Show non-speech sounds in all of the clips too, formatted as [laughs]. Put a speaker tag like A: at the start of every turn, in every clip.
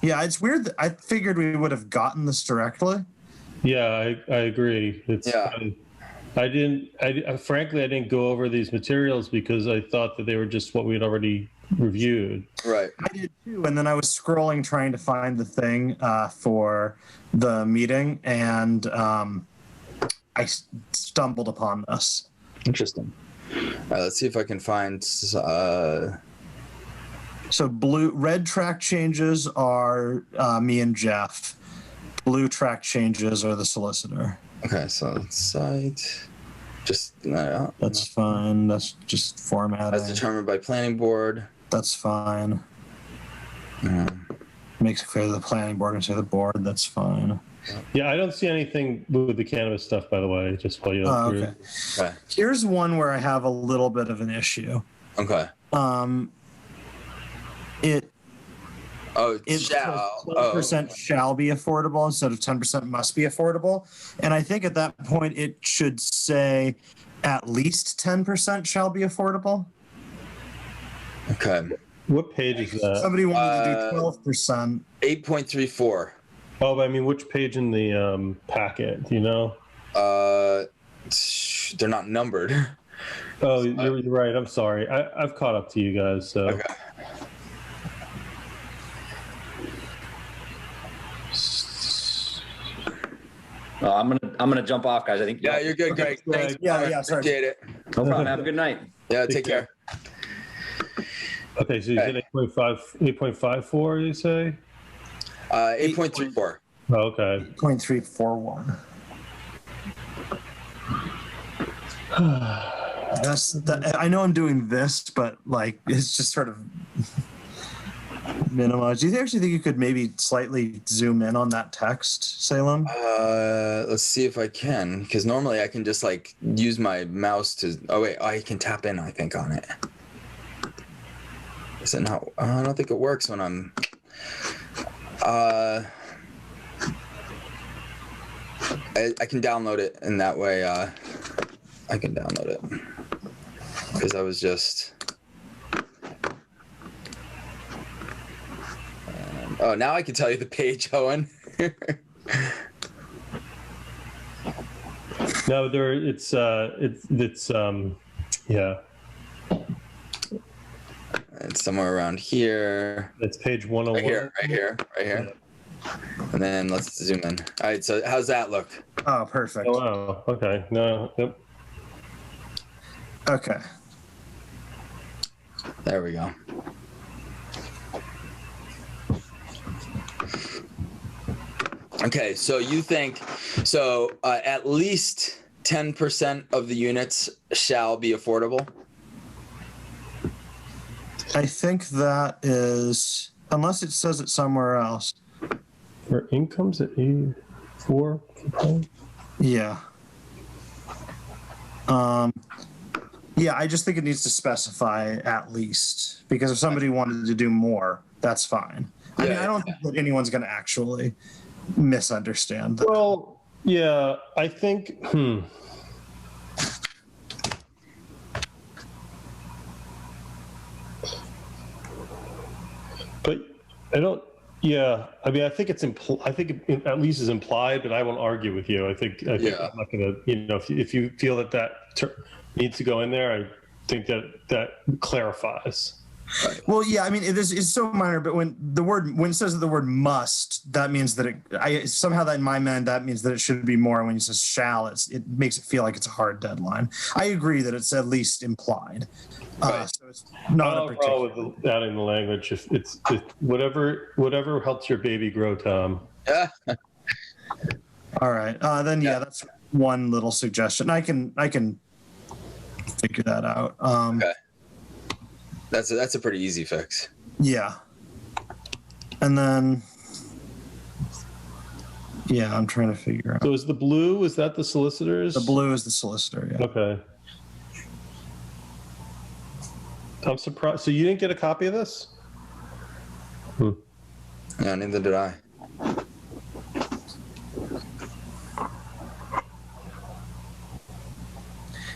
A: Yeah, it's weird. That I figured we would have gotten this directly.
B: Yeah, I, I agree. It's
C: Yeah.
B: um, I didn't. I uh, frankly I didn't go over these materials because I thought that they were just what we had already reviewed.
C: Right.
A: I did too, and then I was scrolling trying to find the thing uh, for the meeting, and um, I s- stumbled upon this.
D: Interesting.
C: All right, let's see if I can find. Uh,
A: So blue, red track changes are uh, me and Jeff. Blue track changes are the solicitor.
C: okay, so site. Just uh,
A: That's fine. That's just formatting.
C: as determined by planning board.
A: That's fine.
C: Yeah.
A: Makes it clear to the planning board and say the board. That's fine.
B: Yeah, I don't see anything with the cannabis stuff by the way. Just while you look
A: Oh,
B: through.
A: okay.
C: Okay.
A: Here's one where I have a little bit of an issue.
C: Okay.
A: Um, it
C: Oh,
A: it
C: shall.
A: twelve
C: Oh,
A: percent shall be affordable instead of ten percent must be affordable, and I think at that point it should say at least ten percent shall be affordable.
C: okay.
B: What page is that?
A: Somebody wanted to
C: Uh,
A: do twelve percent.
C: Eight point three four.
B: Oh, but I mean, which page in the um, packet? Do you know?
C: Uh, sh- they're not numbered. [laughs]
B: Oh, you're, you're right. I'm sorry. I, I've caught up to you guys. So.
C: Okay.
D: Well, I'm gonna I'm gonna jump off, guys. I think.
C: Yeah, you're good, Greg.
B: Greg.
C: Thanks.
A: Yeah,
C: brother.
A: yeah, sorry.
C: Appreciate it.
D: No problem. Have a good night.
C: Yeah,
B: Take
C: take
B: care.
C: care.
B: Okay, so you said 8.5, 8.54, you say?
C: Uh, eight point three four.
B: Oh, okay.
A: Point three four one. [sighs] That's that, I know I'm doing this, but like it's just sort of minimized. Do you actually think you could maybe slightly zoom in on that text, Salem?
C: Uh, let's see if I can, because normally I can just like use my mouse to. Oh wait, I can tap in. I think on it. Is it not? oh, I don't think it works when I'm. Uh. I, I can download it, and that way uh, I can download it. Because I was just. Um, oh, now I can tell you the page, [laughs] Owen.
B: No, there it's uh it's it's um yeah,
C: It's somewhere around here.
B: it's page
C: Right
B: 101.
C: here, right here, right here. And then let's zoom in. All right, so how's that look?
A: Oh, perfect.
B: Oh wow. Okay. No. Yep.
A: Okay.
C: There we go. Okay, so you think so uh, at least 10% of the units shall be affordable? [laughs]
A: I think that is unless it says it somewhere else.
B: For incomes at 84.
A: Yeah. Um, yeah, I just think it needs to specify at least because if somebody wanted to do more, that's fine. I mean,
C: Yeah.
A: I don't think that anyone's going to actually misunderstand. That.
B: Well, yeah, I think hmm. But I don't yeah, I mean I think it's impl- I think it at least is implied, but I won't argue with you. I think I think
C: Yeah.
B: I'm not going to, you know, if you, if you feel that that ter- needs to go in there, I think that that clarifies.
A: Well, yeah, I mean, it is it's so minor, but when the word when it says that the word must, that means that it I somehow that in my mind that means that it should be more. When you says shall, it's it makes it feel like it's a hard deadline. I agree that it's at least implied. Uh,
C: Right. Oh,
A: so it's not
B: I'll
A: a
B: roll
A: particular.
B: with the- adding the language if it's if whatever whatever helps your baby grow, Tom.
C: Yeah.
A: All right. Uh, then yeah,
C: Yeah.
A: that's one little suggestion. I can I can figure that out. Um,
C: Okay. That's a, that's a pretty easy fix.
A: Yeah. And then yeah, I'm trying to figure out.
B: So is the blue? Is that the solicitors?
A: The blue is the solicitor. Yeah.
B: Okay. I'm surprised. So you didn't get a copy of this?
C: Yeah, neither did I.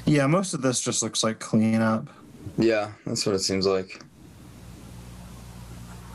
A: Yeah, most of this just looks like cleanup.
C: Yeah, that's what it seems like.